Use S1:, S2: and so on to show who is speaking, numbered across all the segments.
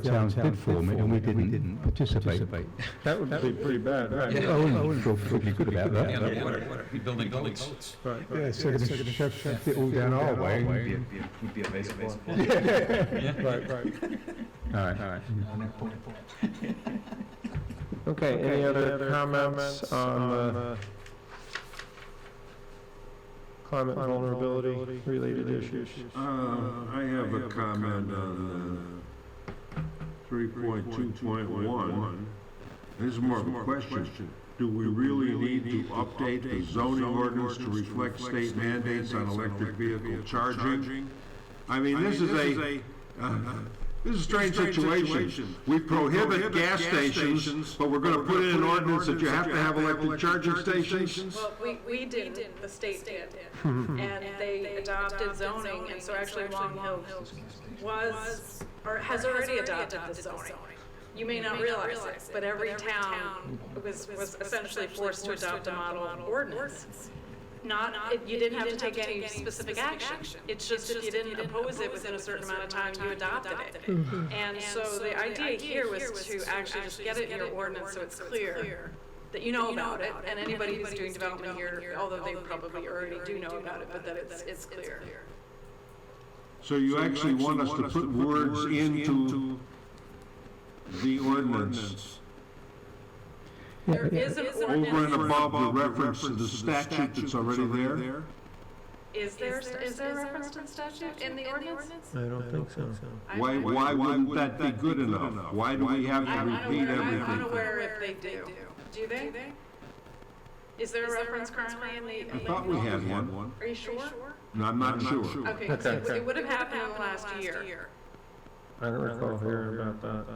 S1: town did form it and we didn't participate.
S2: That would
S3: That'd
S2: be
S3: be pretty bad, right?
S1: I wouldn't feel particularly good about
S4: Yeah,
S1: that.
S4: no, what are, what are we building buildings?
S3: Right, right.
S2: Yeah, so to shove shove it all
S1: Down our way.
S5: Would be, a- be, a- would be a basic one.
S3: Right, right.
S1: All right, all right.
S2: Okay, any other comments on uh, climate vulnerability related issues?
S3: Uh, I have a comment on three point two point one. This is more of a question. Do we really need to update the zoning ordinance to reflect state mandates on electric vehicle charging? I mean, this is a, this is a strange situation. We prohibit gas stations, but we're gonna put in an ordinance that you have to have electric charging stations?
S6: Well, we, we didn't, the state did. And they adopted zoning, and so actually Long Hill was, or has already adopted the zoning. You may not realize it, but every town was, was essentially forced to adopt a model ordinance. Not, it- you didn't have to take any specific action. It's just if you didn't oppose it within a certain amount of time, you adopted it. And so the idea here was to actually just get it in your ordinance so it's clear that you know about it, and anybody who's doing development here, although they probably already do know about it, but that it's, it's clear.
S3: So you actually want us to put words into the ordinance
S6: There is an
S3: over and
S6: ordinance,
S3: above the reference to the statute that's already there?
S6: is there, is there reference to the statute in the ordinance?
S2: I don't think so.
S6: I'm-
S3: Why,
S6: I'm-
S3: why wouldn't that be good enough? Why do we have
S6: I'm
S3: to repeat
S6: unaware, I'm
S3: everything?
S6: unaware if they do. Do they? Is there a reference currently in the?
S3: I thought we had one,
S6: Are you sure?
S3: and I'm not sure.
S6: Okay, 'cause it
S2: Okay.
S6: it would have happened in the last year.
S2: I don't recall hearing about that.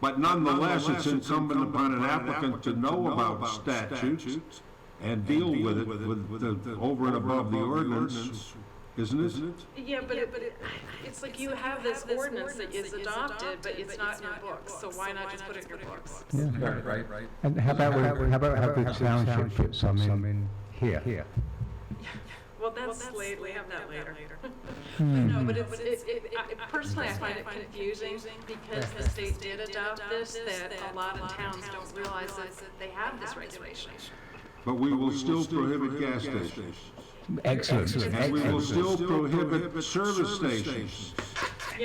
S3: But nonetheless, it's incumbent upon an applicant to know about statutes and deal with it, with the, over and above the ordinance, isn't it?
S6: Yeah, but it, but it, it's like you have this ordinance that is adopted, but it's not in your books, so why not just put it in your books?
S1: Yeah.
S4: Right, right, right.
S1: And how about, we- how about have the township put some in here?
S6: Well, that's late, we have that later. No, but it's, it, it, I- personally, I find it confusing because the state did adopt this, that a lot of towns don't realize that they have this regulation.
S3: But we will still prohibit gas stations.
S1: Excellent.
S3: And we will
S1: excellent.
S3: still prohibit service stations.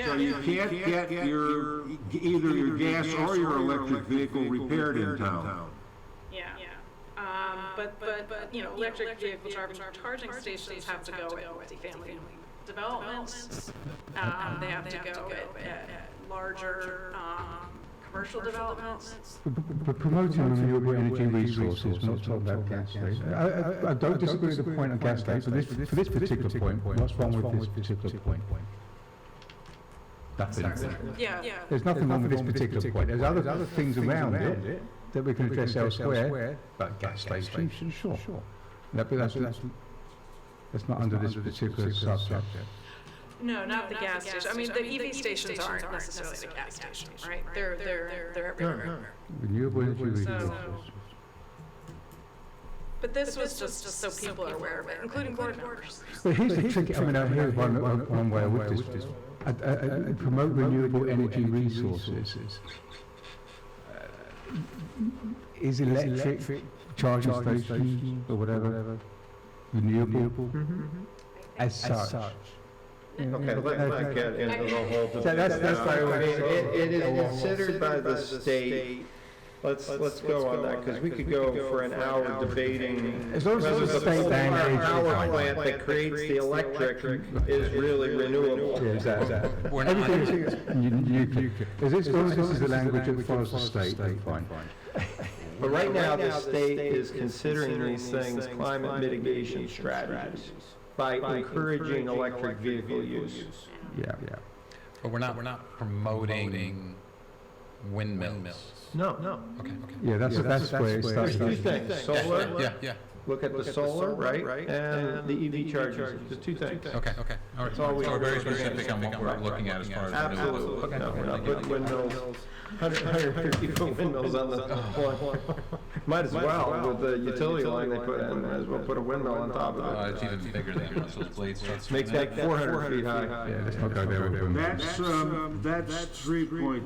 S3: So you can't get your, either your gas or your electric vehicle repaired in town.
S6: Yeah. Um, but, but, but, you know, electric vehicle charging, charging stations have to go at multifamily developments. Um, they have to go at, at larger, um, commercial developments.
S1: We're promoting renewable energy resources, not talking about gas stations. I, I- I don't disagree with the point on gas stations, but this, for this particular point, what's wrong with this particular point? Nothing.
S6: Yeah. Yeah.
S1: There's nothing wrong with this particular point. There's other, other things around it that we can address elsewhere, but gas stations, sure. No, but that's, that's, that's not under this particular subject.
S6: No, not the gas station. I mean, the EV stations aren't necessarily the gas station, right? They're, they're, they're everywhere.
S1: Renewable energy resources.
S6: But this was just, just so people are aware of it, including board members.
S1: Well, here's the trick, I mean, I hear one, one- one way with this, I- I- I- promote renewable energy resources. Uh, Is electric charging stations or whatever renewable
S5: Mm-hmm.
S1: as such?
S5: Okay, let, let get into the whole.
S1: So that's- that's why we're-
S5: It, it is
S2: It is
S5: considered by the state, let's, let's go on that, because we could go for an hour debating.
S1: As long as
S5: whether
S1: it's a
S5: the
S1: state
S5: solar
S1: mandate.
S5: Power plant that creates the electric is really renewable.
S1: Yeah, exactly.
S4: We're not,
S1: Everything is nu- nuclear. As this- as long as this is the language that follows the state, then fine.
S5: But right now, the state is considering these things climate mitigation strategies by encouraging electric vehicle use.
S1: Yeah, yeah.
S4: but we're not, we're not promoting windmills.
S5: No, no.
S4: Okay, okay.
S1: Yeah, that's, that's where it starts.
S5: There's two things, solar
S4: Yeah, yeah,
S5: look at the solar, right? And the EV chargers, the two things.
S4: Okay, okay, all right.
S5: That's all we-
S4: So we're very specific on what we're looking at as far as. renewable.
S5: Absolutely,
S4: Okay.
S5: no, we're not putting windmills, 100, 150 foot windmills on the lawn. Might as well, with the utility line they put in, might as well put a windmill on top
S4: Uh,
S5: of it.
S4: it's even bigger than Russell's Blade starts.
S5: Makes like 400 feet high.
S1: Yeah, let's not go there with a windmill.
S3: um, That's, um, that's three point